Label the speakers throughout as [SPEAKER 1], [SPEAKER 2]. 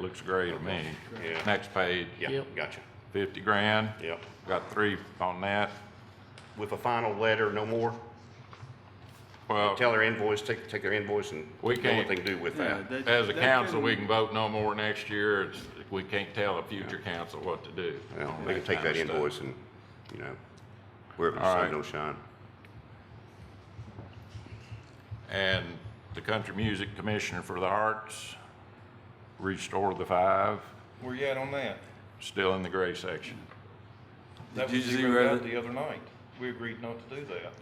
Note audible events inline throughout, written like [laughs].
[SPEAKER 1] Looks great to me.
[SPEAKER 2] Yeah.
[SPEAKER 1] Next page,
[SPEAKER 2] Yeah,
[SPEAKER 3] Yep.
[SPEAKER 2] gotcha.
[SPEAKER 1] fifty grand.
[SPEAKER 2] Yep.
[SPEAKER 1] Got three on that.
[SPEAKER 2] With a final letter, no more.
[SPEAKER 1] Well,
[SPEAKER 2] Tell their invoice, take, take their invoice and
[SPEAKER 1] We
[SPEAKER 2] do what
[SPEAKER 1] can't-
[SPEAKER 2] they can do with that.
[SPEAKER 4] Yeah, that-
[SPEAKER 1] as a
[SPEAKER 4] that
[SPEAKER 1] council,
[SPEAKER 4] couldn't-
[SPEAKER 1] we can vote no more next year. It's, we can't tell a future council what to do.
[SPEAKER 2] Well, they can take that
[SPEAKER 1] kind of stuff.
[SPEAKER 2] invoice and, you know, wherever the
[SPEAKER 1] All right.
[SPEAKER 2] sun don't shine.
[SPEAKER 1] And the Country Music Commissioner for the Arts, restore the five,
[SPEAKER 5] Where you at on that?
[SPEAKER 1] still in the gray section.
[SPEAKER 5] That
[SPEAKER 4] Did you
[SPEAKER 5] was zeroed
[SPEAKER 4] zero
[SPEAKER 5] out
[SPEAKER 4] the-
[SPEAKER 5] the other night. We agreed not to do that.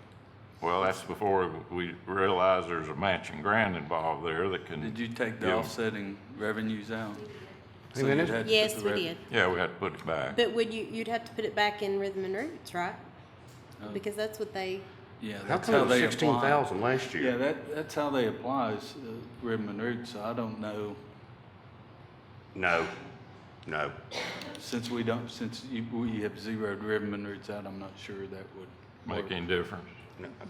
[SPEAKER 1] Well, that's before we realize there's a matching grant involved there that can.
[SPEAKER 4] Did you take the
[SPEAKER 1] Yeah.
[SPEAKER 4] offsetting revenues out?
[SPEAKER 2] Hey,
[SPEAKER 4] So
[SPEAKER 2] man,
[SPEAKER 4] you'd
[SPEAKER 2] that's-
[SPEAKER 4] had to put
[SPEAKER 6] Yes,
[SPEAKER 4] the
[SPEAKER 6] we
[SPEAKER 4] rev-
[SPEAKER 6] did.
[SPEAKER 1] Yeah, we had to put it back.
[SPEAKER 6] But would you, you'd have to put it back in Rhythm and Roots, right?
[SPEAKER 4] Oh.
[SPEAKER 6] Because that's what they,
[SPEAKER 4] Yeah,
[SPEAKER 2] How
[SPEAKER 4] that's
[SPEAKER 2] come
[SPEAKER 4] how
[SPEAKER 2] it was
[SPEAKER 4] they apply.
[SPEAKER 2] sixteen thousand last
[SPEAKER 4] Yeah,
[SPEAKER 2] year?
[SPEAKER 4] that, that's how they apply is uh, ribbon and roots. I don't know,
[SPEAKER 2] No, no.
[SPEAKER 4] since we don't, since you, we have zeroed ribbon and roots out, I'm not sure that would.
[SPEAKER 1] Make any difference?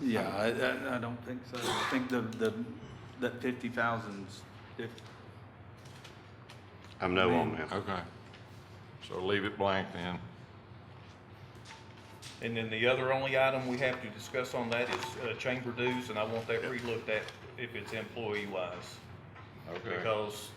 [SPEAKER 4] Yeah, I, I, I don't think so. I think the, the, that fifty thousand's, if,
[SPEAKER 2] I'm no on that.
[SPEAKER 1] Okay. So leave it blank then.
[SPEAKER 5] And then the other only item we have to discuss on that is uh, chamber dues, and I want that relooked at if it's employee-wise. Because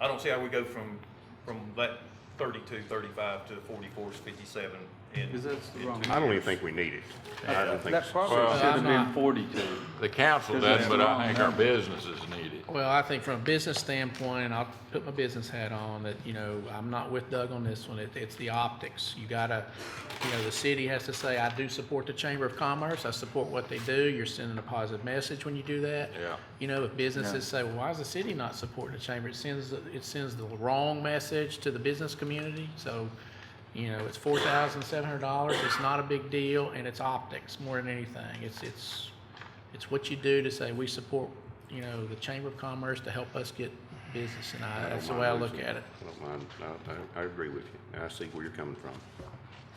[SPEAKER 5] I don't see how we go from, from that 32, 35 to 44, 57 in.
[SPEAKER 4] because that's the
[SPEAKER 5] in
[SPEAKER 4] wrong.
[SPEAKER 5] two
[SPEAKER 2] I don't even
[SPEAKER 5] years.
[SPEAKER 2] think we need it. I don't think
[SPEAKER 4] That
[SPEAKER 2] so.
[SPEAKER 4] probably
[SPEAKER 1] Well,
[SPEAKER 4] should have been forty-two.
[SPEAKER 1] The council
[SPEAKER 4] Because
[SPEAKER 1] does,
[SPEAKER 4] it's
[SPEAKER 1] but
[SPEAKER 4] wrong,
[SPEAKER 1] I think our
[SPEAKER 4] huh?
[SPEAKER 1] businesses need it.
[SPEAKER 3] Well, I think from a business standpoint, I'll put my business hat on, that, you know, I'm not with Doug on this one, it, it's the optics. You gotta, you know, the city has to say, I do support the Chamber of Commerce, I support what they do, you're sending a positive message when you do that.
[SPEAKER 1] Yeah.
[SPEAKER 3] You know, if businesses say, well, why is the city not supporting the chamber, it sends, it sends the wrong message to the business community, so, you know, it's four thousand seven hundred dollars, it's not a big deal, and it's optics more than anything, it's, it's, it's what you do to say, we support, you know, the Chamber of Commerce to help us get business, and I, that's the way I look at it.
[SPEAKER 2] I don't mind. I, I, I agree with you. And I see where you're coming from.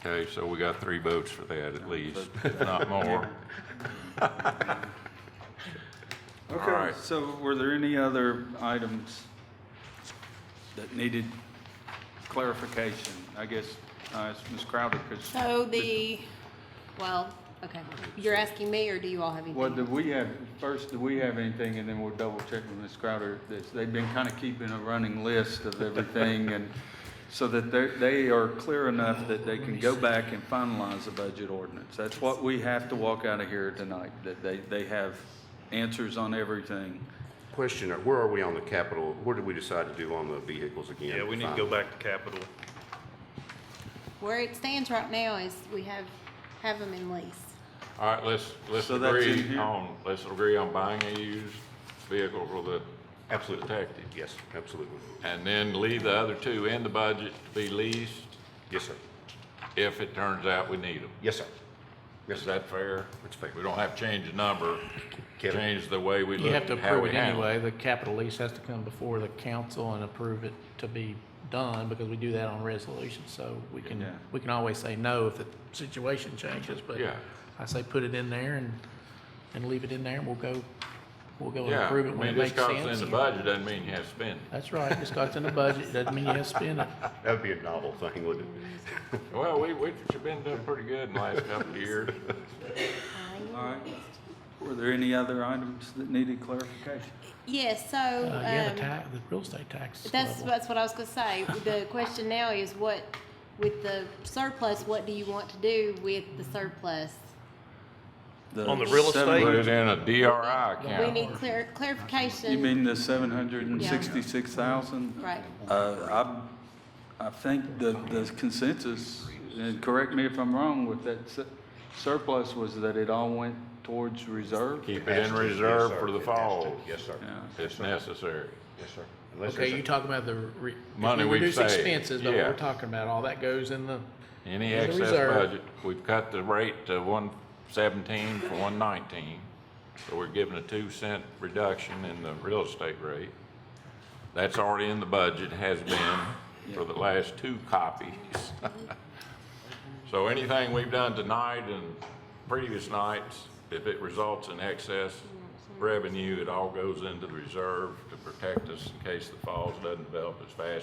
[SPEAKER 1] Okay, so we got three votes for that at least, if not [laughs] more.
[SPEAKER 4] Okay,
[SPEAKER 1] right.
[SPEAKER 4] so were there any other items that needed clarification? I guess, uh, it's Ms. Crowder, because
[SPEAKER 6] so the, well, okay. You're asking me, or do you all have
[SPEAKER 4] Well, do
[SPEAKER 6] anything?
[SPEAKER 4] we have, first, do we have anything, and then we'll double check with Ms. Crowder, this, they've been kind of keeping a running list of everything, and so that they're, they are clear enough that they can go back and finalize the budget ordinance. That's what we have to walk out of here tonight, that they, they have answers on everything.
[SPEAKER 2] Question, uh, where are we on the capital? Where did we decide to do on the vehicles again?
[SPEAKER 5] Yeah, we need to go
[SPEAKER 2] Finally.
[SPEAKER 5] back to capital.
[SPEAKER 6] Where it stands right now is we have, have them in lease.
[SPEAKER 1] All right, let's, let's
[SPEAKER 4] So that's in
[SPEAKER 1] agree
[SPEAKER 4] here?
[SPEAKER 1] on, let's agree on buying a used vehicle for the
[SPEAKER 2] Absolutely.
[SPEAKER 1] detective.
[SPEAKER 2] Yes, absolutely.
[SPEAKER 1] And then leave the other two in the budget to be leased
[SPEAKER 2] Yes, sir.
[SPEAKER 1] if it turns out we need them.
[SPEAKER 2] Yes, sir. Yes,
[SPEAKER 1] Is
[SPEAKER 2] sir.
[SPEAKER 1] that fair?
[SPEAKER 2] That's fair.
[SPEAKER 1] We don't have to change the number,
[SPEAKER 2] Kevin?
[SPEAKER 1] change the way we
[SPEAKER 3] You
[SPEAKER 1] look,
[SPEAKER 3] have to
[SPEAKER 1] at how
[SPEAKER 3] approve
[SPEAKER 1] we
[SPEAKER 3] it
[SPEAKER 1] handle it.
[SPEAKER 3] anyway, the capital lease has to come before the council and approve it to be done, because we do that on resolution, so we can,
[SPEAKER 4] Yeah.
[SPEAKER 3] we can always say no if the situation changes, but
[SPEAKER 1] Yeah.
[SPEAKER 3] I say put it in there and, and leave it in there, and we'll go, we'll go and
[SPEAKER 1] Yeah,
[SPEAKER 3] approve
[SPEAKER 1] I
[SPEAKER 3] it when
[SPEAKER 1] mean,
[SPEAKER 3] it
[SPEAKER 1] just
[SPEAKER 3] makes
[SPEAKER 1] because it's
[SPEAKER 3] sense.
[SPEAKER 1] in the budget doesn't mean you have to spend it.
[SPEAKER 3] That's right, it starts in the budget, doesn't mean you have to
[SPEAKER 6] [laughs]
[SPEAKER 3] spend it.
[SPEAKER 2] That would be a novel thing, wouldn't it?
[SPEAKER 1] Well, we, we've been doing pretty good in the last couple of years.
[SPEAKER 4] All right. Were there any other items that needed clarification?
[SPEAKER 6] Yes, so,
[SPEAKER 3] Uh, yeah,
[SPEAKER 6] um,
[SPEAKER 3] the tax, the real estate tax
[SPEAKER 6] that's,
[SPEAKER 3] level.
[SPEAKER 6] that's what I was gonna say. The question now is what, with the surplus, what do you want to do with the surplus?
[SPEAKER 5] On the real
[SPEAKER 4] seven-
[SPEAKER 5] estate?
[SPEAKER 1] Put it in a DRI
[SPEAKER 6] We
[SPEAKER 1] account.
[SPEAKER 6] need clar- clarification.
[SPEAKER 4] You mean the seven hundred and sixty-six thousand?
[SPEAKER 6] Right.
[SPEAKER 4] Uh, I, I think the, the consensus, and correct me if I'm wrong, with that su- surplus was that it all went towards reserve?
[SPEAKER 1] Keep it
[SPEAKER 2] Has
[SPEAKER 1] in
[SPEAKER 2] to, yes,
[SPEAKER 1] reserve
[SPEAKER 2] sir.
[SPEAKER 1] for the
[SPEAKER 2] It has to.
[SPEAKER 1] fall.
[SPEAKER 2] Yes, sir.
[SPEAKER 4] Yeah.
[SPEAKER 1] It's necessary.
[SPEAKER 2] Yes, sir. Unless
[SPEAKER 3] Okay,
[SPEAKER 2] there's a-
[SPEAKER 3] you're talking about the re- if
[SPEAKER 1] Money
[SPEAKER 3] we
[SPEAKER 1] we've
[SPEAKER 3] reduce
[SPEAKER 1] saved,
[SPEAKER 3] expenses, but
[SPEAKER 1] yeah.
[SPEAKER 3] we're talking about all that goes in the,
[SPEAKER 1] Any
[SPEAKER 3] As a
[SPEAKER 1] excess
[SPEAKER 3] reserve.
[SPEAKER 1] budget, we've cut the rate to one seventeen for one nineteen. So we're giving a two cent reduction in the real estate rate. That's already in the budget, has been for the last two copies. [laughs] So anything we've done tonight and previous nights, if it results in excess, revenue, it all goes into the reserve to protect us in case the falls doesn't develop as fast